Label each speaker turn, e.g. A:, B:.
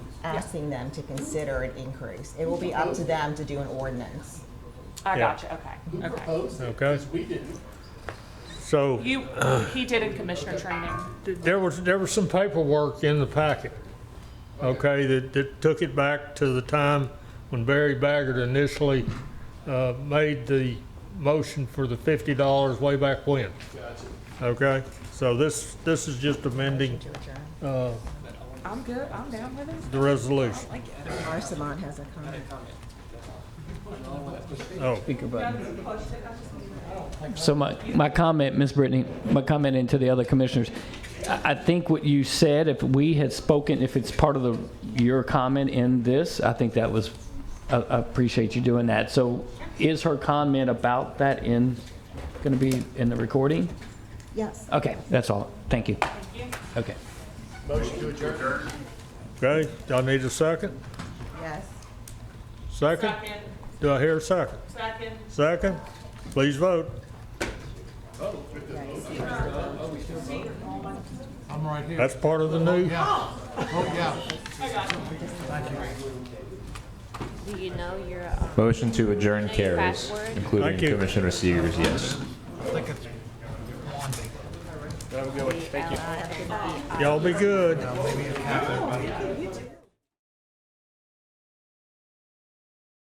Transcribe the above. A: asking them to consider an increase. It will be up to them to do an ordinance.
B: I
C: Yeah.
B: gotcha, okay,
D: Who
B: okay.
D: proposed it?
C: Okay.
D: Because we didn't.
C: So
B: You, he did in commissioner training.
C: th- there was, there was some paperwork in the packet, okay, that, that took it back to the time when Barry Baggert initially uh, made the motion for the fifty dollars way back when,
D: Gotcha.
C: okay? So this, this is just amending
A: To adjourn.
C: uh,
B: I'm good, I'm down with it.
C: the resolution.
A: Arsalan has a comment.
C: Oh,
E: Speaker button. So my, my comment, Ms. Brittany, my comment into the other commissioners, I, I think what you said, if we had spoken, if it's part of the, your comment in this, I think that was, I, I appreciate you doing that. So is her comment about that in, gonna be in the recording?
A: Yes.
E: Okay, that's all. Thank you. Okay.
D: Motion to adjourn.
C: okay, y'all need a second?
A: Yes.
C: Second? Do I hear a second?
B: second.
C: Second? Please vote.
F: I'm right here.
C: That's part of the new,
F: Oh, yeah.
G: Do you know your um,
H: Motion to adjourn
G: Any
H: carries,
G: password?
H: including
C: Thank you.
H: Commissioner Sears, yes.
F: I think it's Wandy.
G: Thank you.
C: y'all be good.